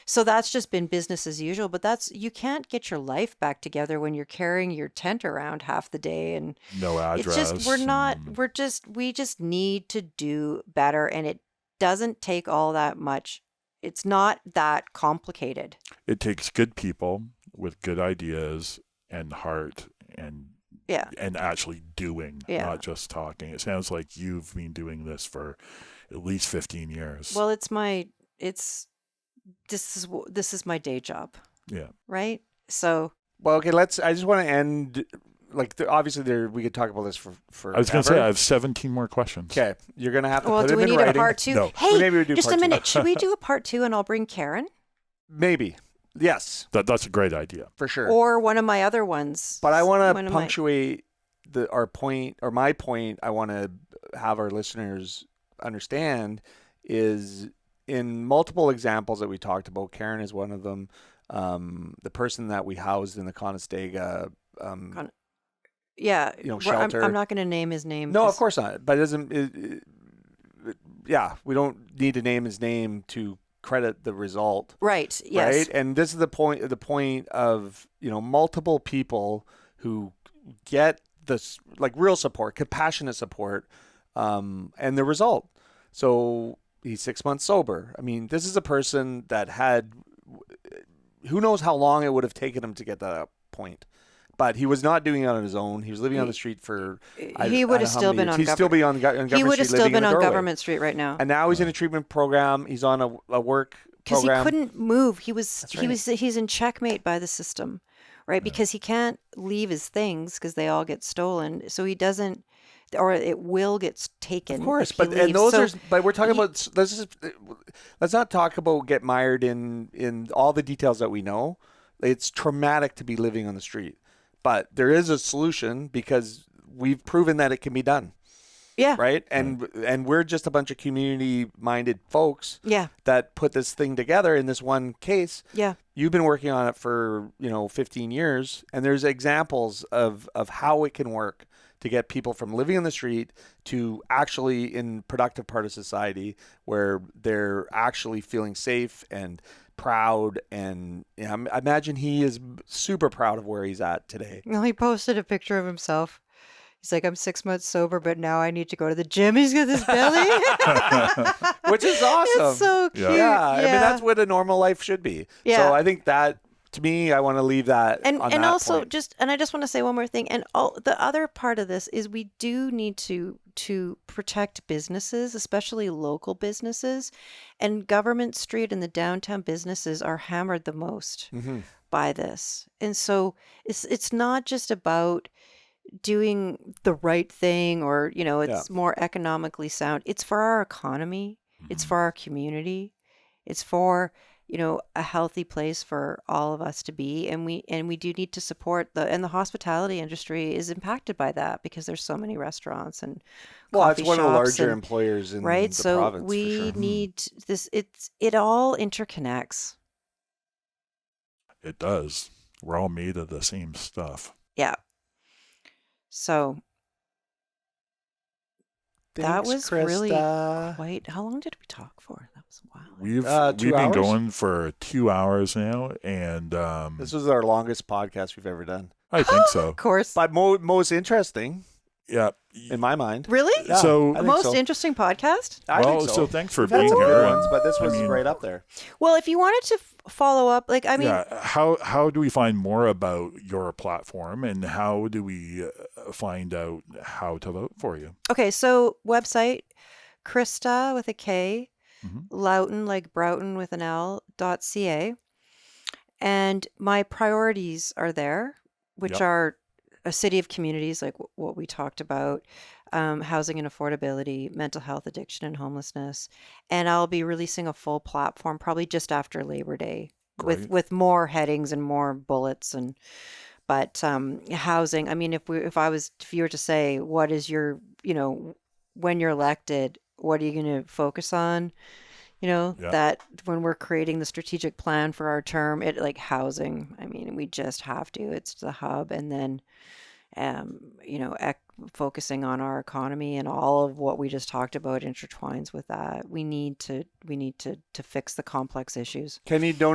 So that's just been business as usual, but that's you can't get your life back together when you're carrying your tent around half the day and No it's just we're address. not And we're just we just need to do better and it doesn't take all that much. It's not that complicated. it takes good people with good ideas and heart and Yeah. and actually doing, Yeah. not just talking. It sounds like you've been doing this for at least 15 years. Well, it's my it's this is wh- this is my day job, yeah. right? So Well, okay, let's. I just want to end. Like, th- obviously, there we could talk about this for for. I was going to say I have 17 more questions. Okay, you're gonna have to well, put do them we in need writing. a part two? No. Hey, Maybe we do just part a two. minute. Should we do a part two and I'll bring Karen Maybe, yes, That that's a great idea. for sure. or one of my other ones? but I want One to of my- punctuate the our point or my point. I want to have our listeners understand is in multiple examples that we talked about. Karen is one of them. Um, the person that we housed in the Conestoga. Um, Con- yeah, you know, we're- I'm- shelter. I'm, not going to name his name. no, of 'cause- course not. But it doesn't. It, it, yeah, we don't need to name his name to credit the result. Right. Yes. right? And this is the point the point of you know multiple people who get this like real support, compassionate support, um, and the result. So he's six months sober. I mean, this is a person that had who knows how long it would have taken him to get that point. But he was not doing it on his own. He was living on the street for. I- He I would have don't know how still many been years. on He'd still government- be on, go- on government. He would have still street living in been a on doorway. government street right now And now he's in a treatment program. He's on a, a work because he program. couldn't move. He was That's he right. was he's in checkmate by the system, right? Because he can't leave his things because they all get stolen. So he doesn't, or it will get s- taken. Of course, if he but and leaves. those So- are. But we're talking he- about. Let's just uh, let's not talk about get mired in in all the details that we know. It's traumatic to be living on the street, but there is a solution because we've proven that it can be done, yeah, right? And and we're just a bunch of community minded folks yeah, that put this thing together in this one case. yeah. You've been working on it for you know 15 years, and there's examples of of how it can work to get people from living on the street to actually in productive part of society where they're actually feeling safe and proud. And you know, I imagine he is super proud of where he's at today. Well, he posted a picture of himself. He's like, I'm six months sober, but now I need to go to the gym. He's got this belly. which is awesome. It's so cute. Yeah. yeah, Yeah, I mean that's what a normal life should be. Yeah. So I think that to me, I want to leave that and on and that also point. just and I just want to say one more thing. And all the other part of this is we do need to to protect businesses, especially local businesses, and government street and the downtown businesses are hammered the most Mhm. by this. And so it's it's not just about doing the right thing or you know Yeah. it's more economically sound it's for our economy Hmm. it's for our community it's for you know a healthy place for all of us to be and we and we do need to support the and the hospitality industry is impacted by that because there's so many restaurants and well, it's coffee one of the shops larger and- employers in right the so province. for we sure. Hmm. need this it's it all interconnects It does. We're all made of the same stuff. yeah so that was really Krista. wait how long did we talk for that was a while We've Uh, two we've been hours? going for 2 hours now and um This was our longest podcast we've ever done, I think so. of course but mo- most interesting Yeah. in my mind. really Yeah, So- I think most so. interesting podcast I well, think so. thanks for We've had being some here. good and- ones, but this I was mean, right up there. well if you wanted to f- follow up like i mean yeah, how how do we find more about your platform and how do we uh, find out how to vote for you? okay so website krista with a K, Mhm. Loughton, like broughton with an l dot ca and my priorities are there which Yep. are a city of communities like w- what we talked about um, housing and affordability mental health addiction and homelessness and i'll be releasing a full platform probably just after labor day with Great. with more headings and more bullets and but um housing i mean if we if i was if you were to say what is your you know when you're elected what are you going to focus on you know Yeah. that when we're creating the strategic plan for our term it like housing i mean we just have to it's the hub and then um you know ec- focusing on our economy and all of what we just talked about intertwines with that we need to we need to to fix the complex issues Can you donate?